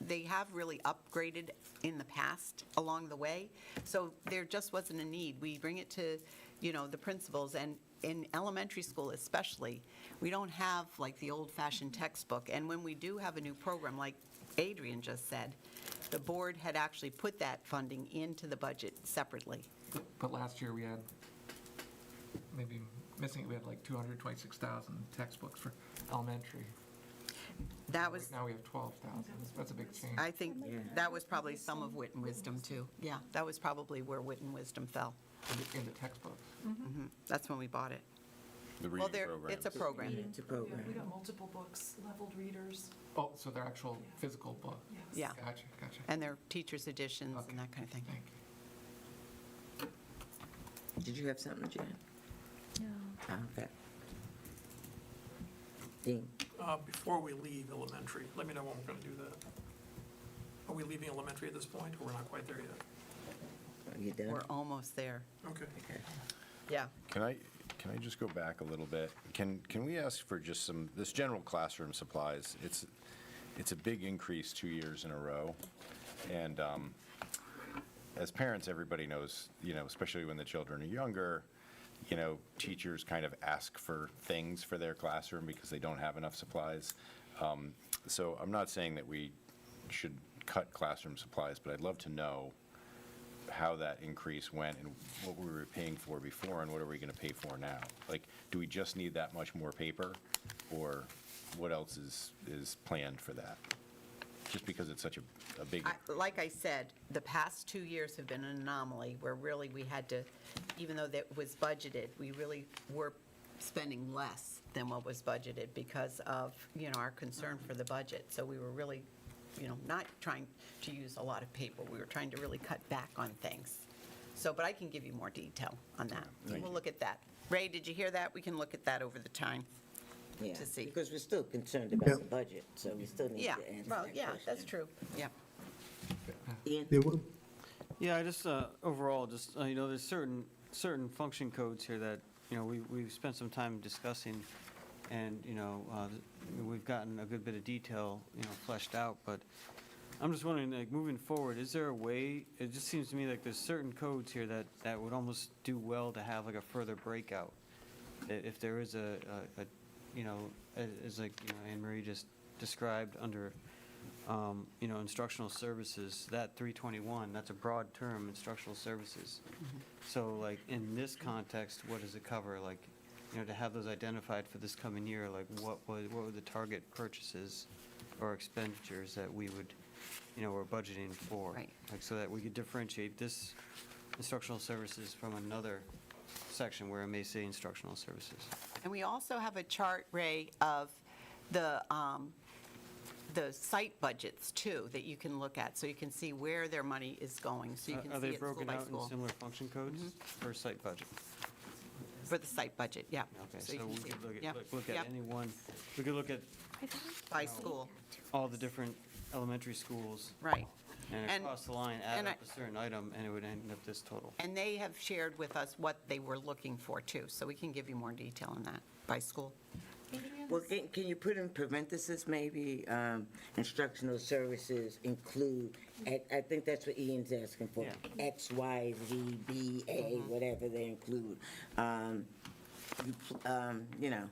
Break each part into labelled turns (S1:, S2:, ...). S1: they have really upgraded in the past along the way, so there just wasn't a need. We bring it to, you know, the principals, and in elementary school especially, we don't have like the old-fashioned textbook, and when we do have a new program, like Adrian just said, the board had actually put that funding into the budget separately.
S2: But last year, we had, maybe missing, we had like 226,000 textbooks for elementary.
S1: That was,
S2: Now we have 12,000. That's a big change.
S1: I think, that was probably some of wit and wisdom, too. Yeah, that was probably where wit and wisdom fell. Mm-hmm.
S2: in the- in the textbooks.
S1: That's when we bought it.
S3: The
S1: Well,
S3: reading
S1: there,
S3: program.
S1: it's a program,
S4: It's a
S5: Yeah, we
S4: program.
S5: got multiple books, leveled readers,
S2: Oh, so they're actual physical book.
S5: yes.
S1: Yeah.
S2: Gotcha, gotcha.
S1: and there are teachers' editions and that kind of thing.
S2: Thank you.
S4: Did you have something, Jen? No. Okay. Dean,
S6: Uh, Before we leave elementary, let me know when we're going to do that. Are we leaving elementary at this point, or we're not quite there yet?
S4: are you done?
S1: We're almost there.
S6: Okay.
S4: Okay.
S1: Yeah.
S3: Can I, can I just go back a little bit? Can, can we ask for just some, this general classroom supplies, it's, it's a big increase two years in a row. And um, as parents, everybody knows, you know, especially when the children are younger, you know, teachers kind of ask for things for their classroom because they don't have enough supplies. Um, So I'm not saying that we should cut classroom supplies, but I'd love to know how that increase went and what we were paying for before and what are we going to pay for now? Like, do we just need that much more paper? Or what else is, is planned for that? Just because it's such a, a big,
S1: I- Like I said, the past two years have been an anomaly where really we had to, even though that was budgeted, we really were spending less than what was budgeted because of, you know, our concern for the budget. So we were really, you know, not trying to use a lot of paper. We were trying to really cut back on things. So, but I can give you more detail on that.
S3: Thank
S1: We'll
S3: you.
S1: look at that. Ray, did you hear that? We can look at that over the time.
S4: Yeah,
S1: To see.
S4: Because we're still concerned about the budget, so we still need to
S1: Yeah,
S4: answer that question.
S1: well, yeah, that's true. Yeah.
S4: Ian?
S7: There were,
S8: Yeah, I just, uh, overall, just, uh, you know, there's certain, certain function codes here that, you know, we, we've spent some time discussing, and, you know, uh, we've gotten a good bit of detail, you know, fleshed out, but I'm just wondering, like, moving forward, is there a way, it just seems to me like there's certain codes here that, that would almost do well to have like a further breakout. I- If there is a, a- a, you know, a- as like, you know, Anne Marie just described under, um, you know, instructional services, that 321, that's a broad term, instructional services. So like, in this context, what does it cover? Like, you know, to have those identified for this coming year, like what was, what were the target purchases or expenditures that we would, you know, we're budgeting for?
S1: Right.
S8: Like, so that we could differentiate this instructional services from another section where it may say instructional services.
S1: And we also have a chart, Ray, of the, um, the site budgets, too, that you can look at, so you can see where their money is going, so you can
S8: Uh,
S1: see
S8: Are they
S1: it school
S8: broken
S1: by
S8: out in
S1: school. Mm-hmm.
S8: similar function codes for site budget?
S1: For the site budget, yeah.
S8: Okay,
S1: you
S8: so
S1: can
S8: we
S1: see
S8: could
S1: it.
S8: look
S1: Yep,
S8: at, look- look at
S1: yep,
S8: any one, we could look at
S1: By school,
S8: all the different elementary schools.
S1: right.
S8: And
S1: And-
S8: across the line, add
S1: and I-
S8: up a certain item, and it would end up this total.
S1: And they have shared with us what they were looking for, too, so we can give you more detail on that, by school.
S4: Well, can, can you put in parentheses, maybe, um, instructional services include, I, I think that's what Ian's asking for.
S8: Yeah.
S4: X, Y, Z, B,
S1: Uh-huh.
S4: A, whatever they include. Um, you pl- um, you know,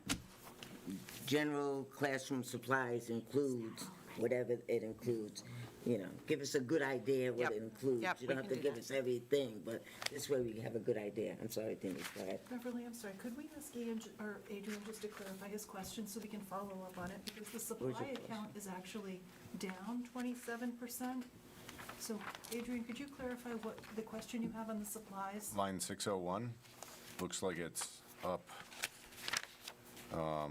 S4: general classroom supplies includes whatever it includes. You know, give us a good idea of what
S1: Yep.
S4: it includes.
S1: Yep, we
S4: You don't have
S1: can do
S4: to give
S1: that.
S4: us everything, but this way we have a good idea. I'm sorry, Denise, go ahead.
S5: Beverly, I'm sorry, could we ask Ian, j- or Adrian just to clarify his question so we can follow up on it? Because the
S4: your
S5: supply account is actually down twenty-seven percent. So Adrian, could you clarify what, the question you have on the supplies?
S3: line 601, looks like it's up
S4: Yeah,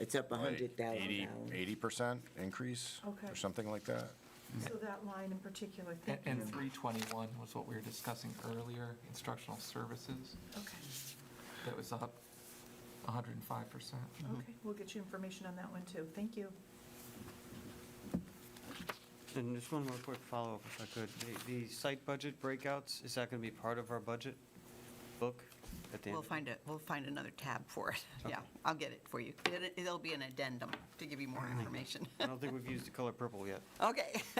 S4: It's up a
S3: like
S4: hundred thousand
S3: 80,
S4: dollars.
S3: 80% increase
S5: Okay.
S3: or something like that.
S5: So that line in particular,
S2: And-
S5: thank you.
S2: And 321 was what we were discussing earlier, instructional services.
S5: Okay,
S2: That was up 105%.
S5: okay, we'll get you information on that one too, thank you.
S8: And just one more quick follow-up, if I could. The, the site budget breakouts, is that going to be part of our budget book at the end?
S1: We'll
S8: of it?
S1: find it, we'll find another tab for it, yeah,
S8: Okay.
S1: I'll get it for you. It- It'll be an addendum to give you more information.
S8: I don't think we've used the color purple yet.
S1: Okay.